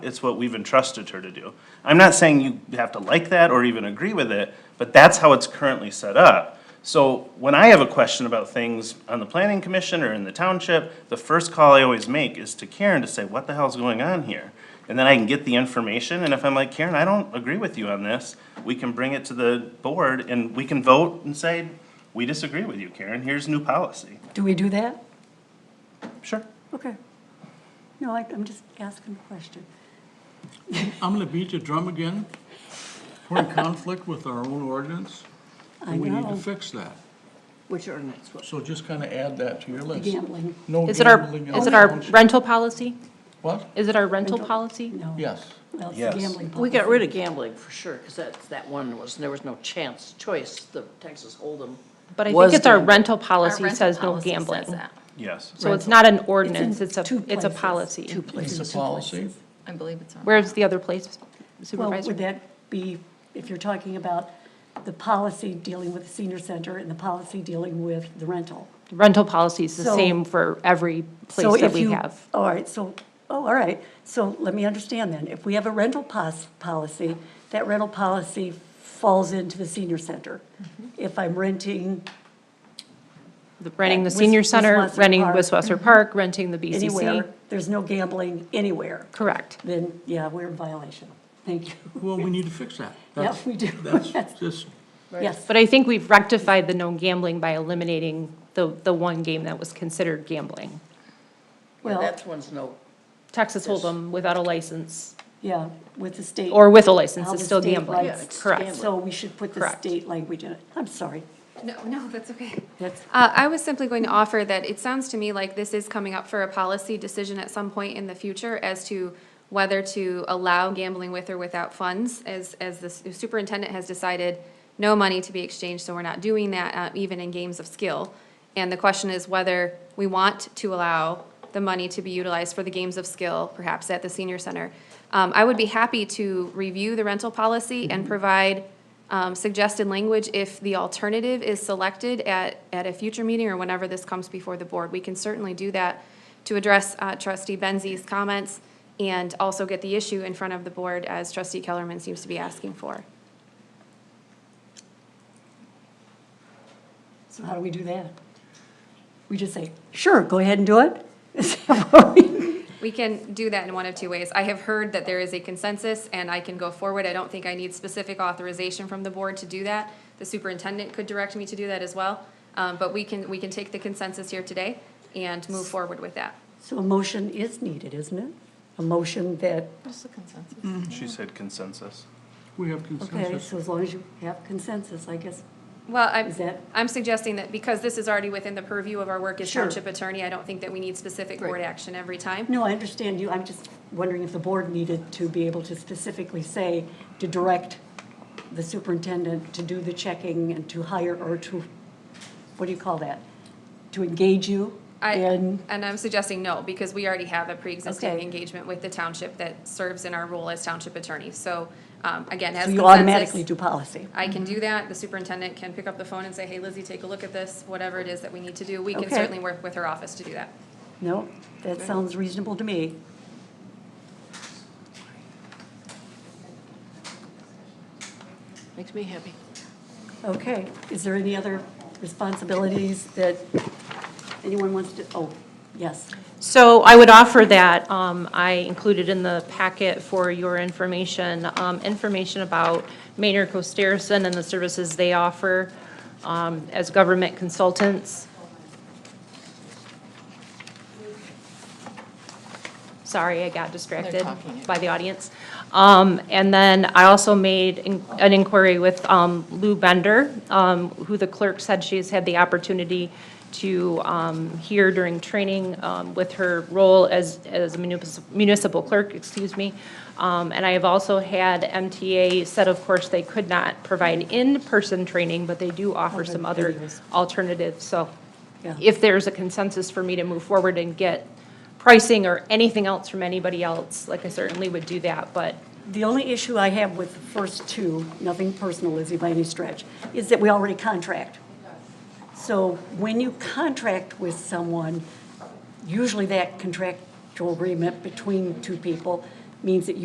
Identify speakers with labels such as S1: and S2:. S1: It's what we've entrusted her to do. I'm not saying you have to like that or even agree with it, but that's how it's currently set up. So when I have a question about things on the planning commission or in the township, the first call I always make is to Karen to say, what the hell's going on here? And then I can get the information, and if I'm like, Karen, I don't agree with you on this, we can bring it to the board and we can vote and say, we disagree with you, Karen, here's new policy.
S2: Do we do that?
S1: Sure.
S2: Okay. No, I, I'm just asking a question.
S3: I'm gonna beat the drum again. We're in conflict with our own ordinance,
S2: I
S3: and we need to
S2: know.
S3: fix that.
S2: Which ordinance was?
S3: So just kinda add that to your list.
S2: Gambling.
S3: No
S4: Is it our,
S3: gambling in
S4: is it
S3: the
S4: our
S3: township.
S4: rental policy?
S3: What?
S4: Is it our rental policy?
S2: No.
S3: Yes.
S2: Well, it's
S1: Yes.
S2: a gambling policy.
S5: We got rid of gambling for sure, because that's, that one was, there was no chance, choice, the Texas Hold'em.
S4: But I
S5: Was
S4: think it's our
S5: gambling.
S4: rental
S6: Our
S4: policy
S6: rental
S4: says no
S6: policy says
S4: gambling.
S6: that.
S1: Yes.
S4: So it's not an
S2: in
S4: ordinance, it's a,
S2: two
S4: it's a
S2: places,
S4: policy.
S2: Two places.
S3: It's a
S2: two
S3: policy.
S2: places.
S6: I believe it's on.
S4: Where's the other place
S2: Well, would
S4: supervisor?
S2: that be, if you're talking about the policy dealing with the senior center and the policy dealing with the rental?
S4: Rental policy is the
S2: So-
S4: same for every
S2: So
S4: place that
S2: if
S4: we
S2: you-
S4: have.
S2: All right, so, oh, all right, so let me understand then. If we have a rental pos, policy, that rental policy falls into the senior center.
S4: Mm-hmm.
S2: If I'm renting
S4: The- Renting the
S2: Wis-
S4: senior center,
S2: Wiswasser
S4: renting
S2: Park. Mm-hmm.
S4: Wiswasser Park, renting the
S2: anywhere,
S4: BCC.
S2: there's no gambling anywhere,
S4: Correct.
S2: then, yeah, we're in violation. Thank you.
S3: Well, we need to fix that.
S2: Yeah,
S3: That's-
S2: we do.
S3: That's just,
S2: Yes,
S4: But I think we've rectified the no gambling by eliminating the, the one game that was considered gambling.
S5: Yeah,
S2: well,
S5: that one's no,
S4: Texas Hold'em without a license,
S2: yeah, with the state.
S4: or with a license,
S2: How
S4: is
S2: the
S4: still
S2: state
S4: gambling.
S2: Yeah,
S5: it's
S4: Correct.
S5: gambling.
S2: So we should put the
S4: Correct.
S2: state language in it. I'm sorry.
S6: No, no, that's okay.
S2: That's,
S6: Uh, I was simply going to offer that it sounds to me like this is coming up for a policy decision at some point in the future as to whether to allow gambling with or without funds, as, as the superintendent has decided, no money to be exchanged, so we're not doing that, uh, even in games of skill. And the question is whether we want to allow the money to be utilized for the games of skill, perhaps at the senior center. Um, I would be happy to review the rental policy and provide um, suggested language if the alternative is selected at, at a future meeting or whenever this comes before the board. We can certainly do that to address uh, trustee Benzie's comments and also get the issue in front of the board as trustee Kellerman seems to be asking for.
S2: so how do we do that? We just say, sure, go ahead and do it? Is that what we-
S6: We can do that in one of two ways. I have heard that there is a consensus and I can go forward. I don't think I need specific authorization from the board to do that. The superintendent could direct me to do that as well. Um, But we can, we can take the consensus here today and move forward with that.
S2: So a motion is needed, isn't it? A motion that,
S6: Just the consensus.
S4: Mm.
S1: She said consensus.
S3: we have
S2: okay,
S3: consensus.
S2: so as long as you have consensus, I guess.
S6: Well, I'm,
S2: Is that-
S6: I'm suggesting that because this is already within the purview of our work as
S2: Sure.
S6: township attorney, I don't think that we need specific board
S2: Right.
S6: action every time.
S2: No, I understand you. I'm just wondering if the board needed to be able to specifically say to direct the superintendent to do the checking and to hire or to, what do you call that? To engage you
S6: I,
S2: in?
S6: and I'm suggesting no, because we already have a pre-existing
S2: Okay.
S6: engagement with the township that serves in our role as township attorney. So, um, again, as
S2: So
S6: consensus.
S2: you automatically do Mm-hmm. policy.
S6: I can do that. The superintendent can pick up the phone and say, hey, Lizzie, take a look at this, whatever it is that we need to do. We can
S2: Okay.
S6: certainly work with her office to do that.
S2: No, that sounds reasonable to me.
S5: makes me happy.
S2: Okay, is there any other responsibilities that anyone wants to, oh, yes.
S4: So I would offer that, um, I included in the packet for your information, um, information about Maynard Costerison and the services they offer, um, as government consultants. Sorry, I got distracted
S5: talking.
S4: by the audience. Um, and then I also made in- an inquiry with, um, Lou Bender, um, who the clerk said she's had the opportunity to, um, hear during training, um, with her role as, as municipal- municipal clerk, excuse me. Um, and I have also had MTA said, of course, they could not provide in-person training, but they do offer some other
S2: Alternatives.
S4: alternatives, so
S2: Yeah.
S4: if there's a consensus for me to move forward and get pricing or anything else from anybody else, like I certainly would do that, but
S2: The only issue I have with the first two, nothing personal, Lizzie, by any stretch, is that we already contract. So when you contract with someone, usually that contractual agreement between two people means that you